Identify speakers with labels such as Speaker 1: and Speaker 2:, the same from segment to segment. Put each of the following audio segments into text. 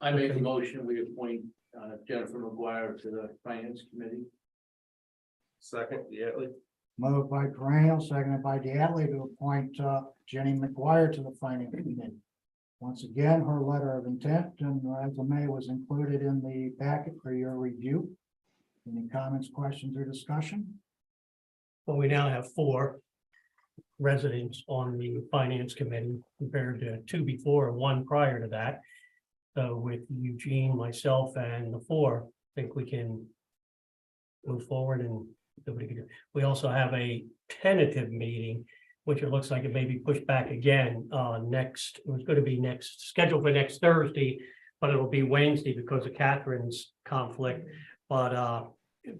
Speaker 1: I make a motion, we appoint uh, Jennifer McGuire to the Finance Committee.
Speaker 2: Second, Diatley.
Speaker 3: Moved by Graham, seconded by Diatley to appoint uh, Jenny McGuire to the Finance Committee. Once again, her letter of intent and uh, resume was included in the packet for your review. Any comments, questions, or discussion?
Speaker 4: But we now have four residents on the finance committee compared to two before and one prior to that. So with Eugene, myself and the four, I think we can move forward and nobody can, we also have a tentative meeting, which it looks like it may be pushed back again, uh, next, it was gonna be next, scheduled for next Thursday, but it'll be Wednesday because of Catherine's conflict. But, uh,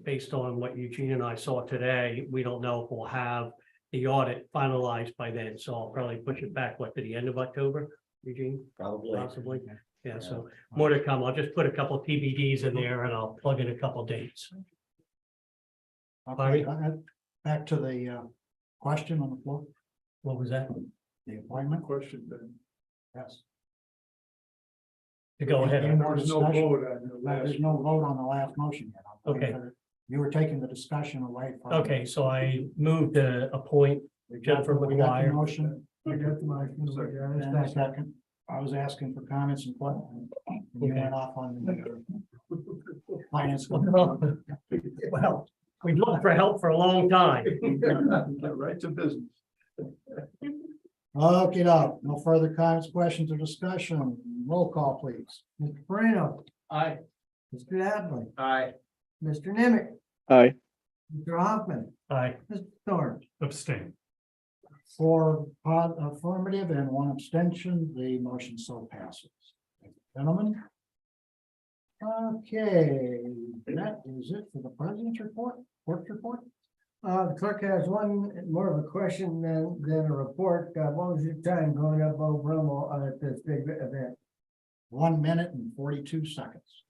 Speaker 4: based on what Eugene and I saw today, we don't know if we'll have the audit finalized by then, so I'll probably push it back, what, to the end of October, Eugene,
Speaker 2: Probably.
Speaker 4: possibly? Yeah, so more to come. I'll just put a couple TBDs in there and I'll plug in a couple dates.
Speaker 3: Okay,
Speaker 4: Bobby?
Speaker 3: go ahead. uh, back to the uh, question on the floor,
Speaker 4: What was that?
Speaker 3: the appointment,
Speaker 1: Question then.
Speaker 3: yes.
Speaker 4: To go
Speaker 3: Any
Speaker 4: ahead.
Speaker 3: more discussion?
Speaker 1: on the
Speaker 3: No, There's no vote on the last motion yet. I'm waiting
Speaker 4: Okay.
Speaker 3: for- You were taking the discussion away. from-
Speaker 4: Okay, so I moved to appoint
Speaker 3: We got-
Speaker 4: Jennifer
Speaker 3: we got the
Speaker 4: McGuire.
Speaker 3: Motion.
Speaker 1: We got the motion, so we got a
Speaker 3: And a second. I was asking for comments and what, and you
Speaker 4: Okay.
Speaker 3: went off on the uh, finance.
Speaker 4: Well, we've looked for help for a long time.
Speaker 1: Right to business.
Speaker 3: Okay, no, no further comments, questions or discussion. Roll call, please. Mr. Bruno,
Speaker 1: Aye.
Speaker 3: Mr. Adley,
Speaker 1: Aye.
Speaker 3: Mr. Nimitz,
Speaker 5: Aye,
Speaker 3: Mr. Hoffman,
Speaker 4: I
Speaker 3: Mr. Thorne.
Speaker 4: abstain.
Speaker 3: For affirmative and one abstention, the motion so passes. Thank you, Gentlemen. Okay, that is it for the president's report, clerk's report.
Speaker 6: Uh, the clerk has one more of a question than, than a report. Uh, what was your time going up Old Brummel uh, at this big event?
Speaker 3: one minute and forty-two seconds.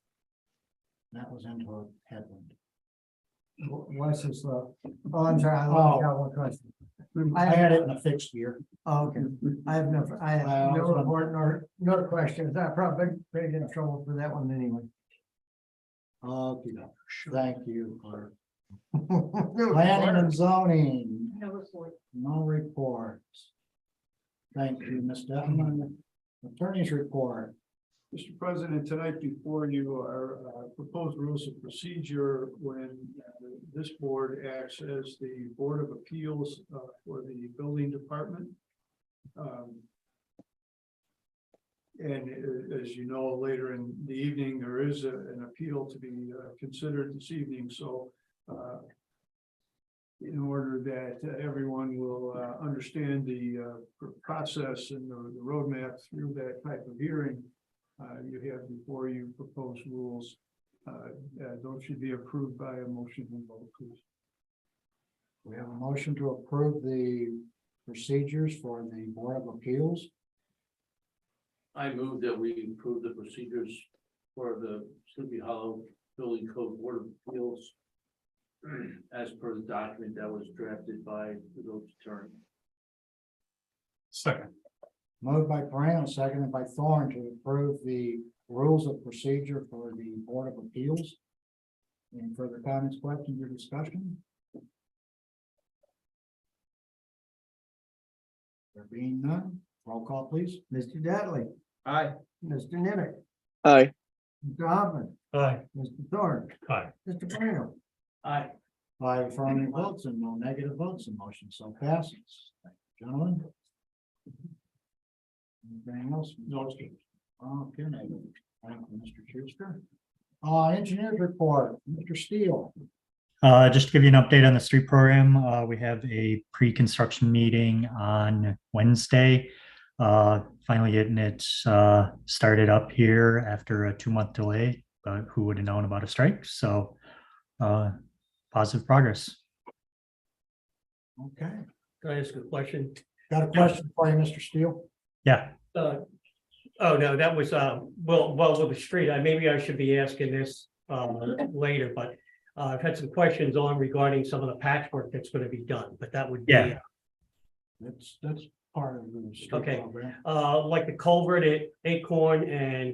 Speaker 3: That was into a headwind.
Speaker 6: What's this, uh, oh, I'm sorry, I only got one question.
Speaker 1: Mm-hmm.
Speaker 3: I had it in a fixed year.
Speaker 6: Oh, Okay, I have no, I have
Speaker 3: I
Speaker 6: no
Speaker 3: also-
Speaker 6: report nor, nor questions. I probably been in trouble for that one anyway.
Speaker 3: Okay, thank you, clerk. Planning
Speaker 6: Planning
Speaker 3: and zoning,
Speaker 7: No report.
Speaker 3: no reports. Thank you, Ms. Detman. Attorney's report.
Speaker 1: Mr. President, tonight before you are uh, proposed rules of procedure when uh, this board acts as the Board of Appeals uh, for the Building Department. Um, And a- as you know, later in the evening, there is a- an appeal to be uh, considered this evening, so uh, in order that everyone will uh, understand the uh, pr- process and the the roadmap through that type of hearing, uh, you have before you proposed rules. Uh, uh, those should be approved by a motion and vote, please.
Speaker 3: We have a motion to approve the procedures for the Board of Appeals.
Speaker 1: I move that we approve the procedures for the Sleepy Hollow Building Code Board of Appeals as per the document that was drafted by the village attorney.
Speaker 4: Second.
Speaker 3: Moved by Brown, seconded by Thorne to approve the rules of procedure for the Board of Appeals. Any further comments, questions, or discussion? There being none, roll call please.
Speaker 6: Mr. Dudley,
Speaker 1: Aye.
Speaker 6: Mr. Nimitz,
Speaker 5: aye,
Speaker 6: Mr. Hoffman,
Speaker 4: Aye.
Speaker 6: Mr. Thorne,
Speaker 4: Aye.
Speaker 6: Mr. Bruno.
Speaker 1: Aye.
Speaker 3: By affirmative votes and no negative votes, the motion so passes. Thank you, Gentlemen. Anything else? No. Okay, thank you, Mr. Schuster. Uh, engineers report, Mr. Steele.
Speaker 8: Uh, just to give you an update on the street program, uh, we have a pre-construction meeting on Wednesday. Uh, finally getting it, uh, started up here after a two-month delay, but who would have known about a strike? So, uh, positive progress.
Speaker 3: Okay,
Speaker 4: Can I ask a question?
Speaker 3: got a question for you, Mr. Steele.
Speaker 8: Yeah,
Speaker 4: Uh, Oh, no, that was, um, well, well, with the street, I, maybe I should be asking this, um, later, but. Uh, I've had some questions on regarding some of the patchwork that's gonna be done, but that would be.
Speaker 8: Yeah.
Speaker 3: That's, that's part of the. street
Speaker 4: Okay.
Speaker 3: program.
Speaker 4: Uh, like the culvert at Acorn and